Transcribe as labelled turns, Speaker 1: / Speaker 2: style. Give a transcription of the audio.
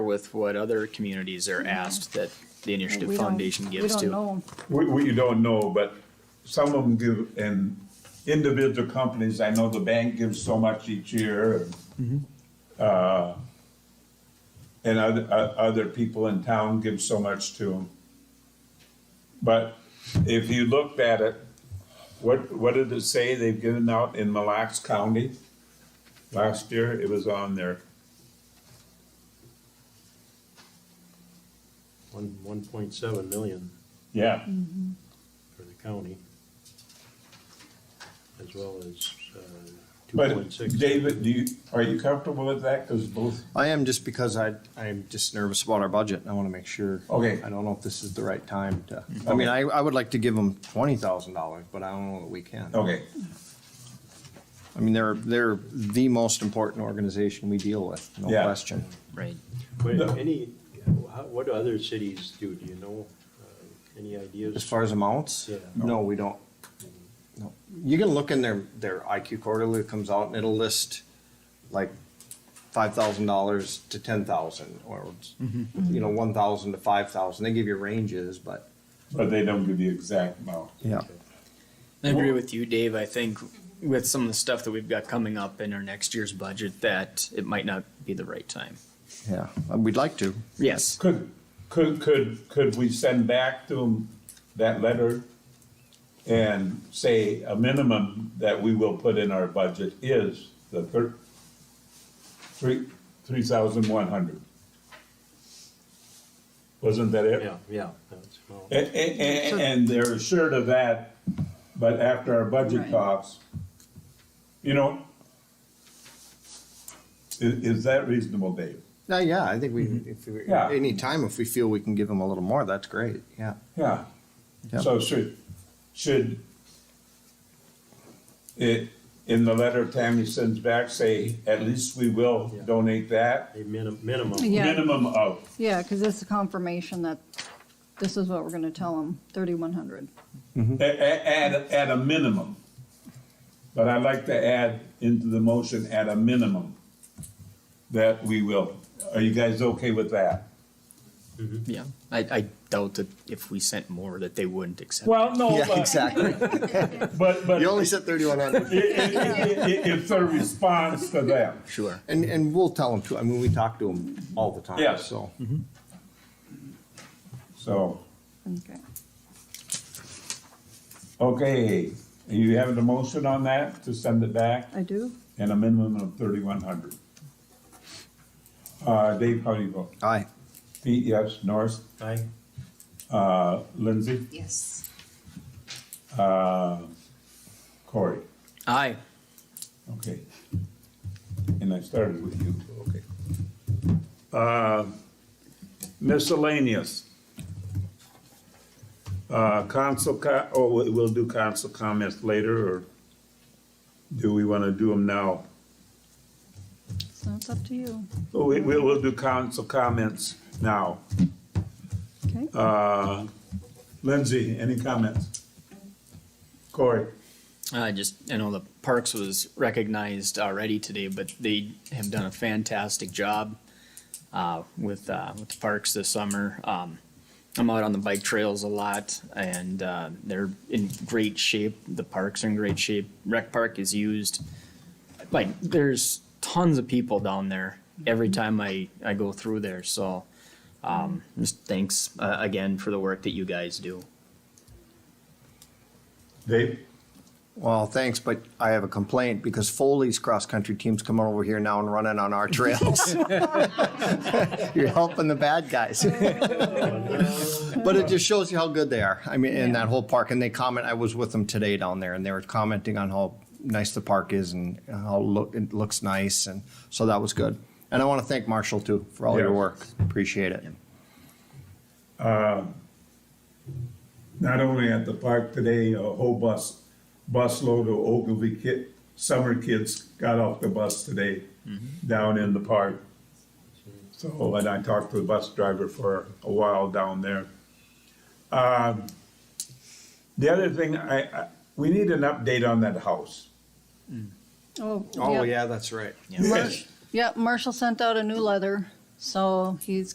Speaker 1: with what other communities are asked that the Initiative
Speaker 2: Mm-hmm. We don't-
Speaker 1: Foundation gives
Speaker 2: We don't
Speaker 1: to.
Speaker 2: know.
Speaker 3: We, we don't know, but some of them give, and individual companies, I know the bank gives so much each year. and, uh, And other, o- other people in town give so much to them. But if you looked at it, what, what did it say they've given out in Mille Lacs County? Last year, it was on there.
Speaker 4: One, one point seven million
Speaker 3: Yeah,
Speaker 4: Mm-hmm. for the county. As well as, uh, two
Speaker 3: but
Speaker 4: point six.
Speaker 3: David, do you, are you comfortable with that? Cause both,
Speaker 5: I am just because I, I'm just nervous about our budget. and I want to make sure.
Speaker 3: Okay.
Speaker 5: I don't know if this is the right time to, I mean, I, I would like to give them twenty thousand dollars, but I don't know that we can.
Speaker 3: okay.
Speaker 5: I mean, they're, they're the most important organization we deal with, no
Speaker 3: Yeah.
Speaker 5: question.
Speaker 1: Right.
Speaker 4: But
Speaker 3: No.
Speaker 4: any, how- what other cities do, do you know, uh, any ideas?
Speaker 5: As far as amounts?
Speaker 4: Yeah.
Speaker 5: No, we don't. No. You can look in their, their IQ quarterly that comes out and it'll list like five thousand dollars to ten thousand or, you know, one thousand to five thousand. They give you ranges, but.
Speaker 3: But they don't give the exact amount.
Speaker 5: Yeah.
Speaker 1: I agree with you, Dave. I think with some of the stuff that we've got coming up in our next year's budget, that it might not be the right time.
Speaker 5: Yeah, Uh, we'd like to.
Speaker 1: Yes.
Speaker 3: Could, could, could, could we send back to them that letter and say a minimum that we will put in our budget is the thir- three, three thousand one hundred? Wasn't that it?
Speaker 4: Yeah, yeah, that's, well,
Speaker 3: And, and, and they're assured of that, but after our budget
Speaker 2: Right.
Speaker 3: talks, you know, i- is that reasonable, Dave?
Speaker 5: Uh, yeah, I think we, if, we-
Speaker 3: Mm-hmm. Yeah.
Speaker 5: anytime if we feel we can give them a little more, that's great, yeah.
Speaker 3: Yeah.
Speaker 5: Yep.
Speaker 3: So should, should it, in the letter Tammy sends back, say, at least we will
Speaker 4: Yeah.
Speaker 3: donate that?
Speaker 4: a minimum, minimum.
Speaker 2: Yeah.
Speaker 3: Minimum of,
Speaker 2: Yeah, because this is confirmation that this is what we're gonna tell them, thirty-one hundred.
Speaker 3: a- a- at, at a minimum. But I'd like to add into the motion at a minimum that we will. Are you guys okay with that?
Speaker 1: Yeah. I, I doubt that if we sent more that they wouldn't accept. it.
Speaker 3: Well, no,
Speaker 5: Yeah, exactly.
Speaker 3: but, but
Speaker 5: You only said thirty-one hundred.
Speaker 3: it's a response to that.
Speaker 1: Sure.
Speaker 5: And, and we'll tell them too, I mean, we talk to them all the
Speaker 3: Yeah.
Speaker 5: time, so.
Speaker 3: So,
Speaker 2: Okay.
Speaker 3: okay, you have a motion on that to send it back?
Speaker 2: I do?
Speaker 3: and a minimum of thirty-one hundred. Uh, Dave, how do you vote?
Speaker 5: Aye.
Speaker 3: Pete, yes, Norris,
Speaker 4: Aye.
Speaker 3: uh, Lindsay,
Speaker 6: Yes.
Speaker 3: uh, Corey,
Speaker 1: Aye.
Speaker 3: okay. And I started with you, okay. Uh, miscellaneous. Uh, council co- oh, we- we'll do council comments later, or do we wanna do them now?
Speaker 2: So it's up to you.
Speaker 3: We, we will do council comments now.
Speaker 2: Okay,
Speaker 3: Uh, Lindsay, any comments? Corey?
Speaker 1: I Uh, just, I know the Parks was recognized already today, but they have done a fantastic job uh, with, uh, with the parks this summer. Um, I'm out on the bike trails a lot and uh, they're in great shape. The parks are in great shape. Rec Park is used. Like, there's tons of people down there every time I, I go through there, so um, just thanks uh, again for the work that you guys do.
Speaker 3: Dave?
Speaker 5: Well, thanks, but I have a complaint because Foley's cross-country team's coming over here now and running on our trails. You're helping the bad guys. But it just shows you how good they are. I mean, in that whole park, and they comment, I was with them today down there and they were commenting on how nice the park is and how look, it looks nice and so that was good. And I want to thank Marshall too for all your
Speaker 3: Yeah.
Speaker 5: work. Appreciate it.
Speaker 3: Not only at the park today, a whole bus, busload of Ogilvy kid, summer kids got off the bus today down in the park. Mm-hmm. So, and I talked to the bus driver for a while down there. Um, The other thing, I, I, we need an update on that house.
Speaker 2: oh.
Speaker 5: Oh, yeah, that's right.
Speaker 2: Mar- Yeah, Marshall sent out a new letter So he's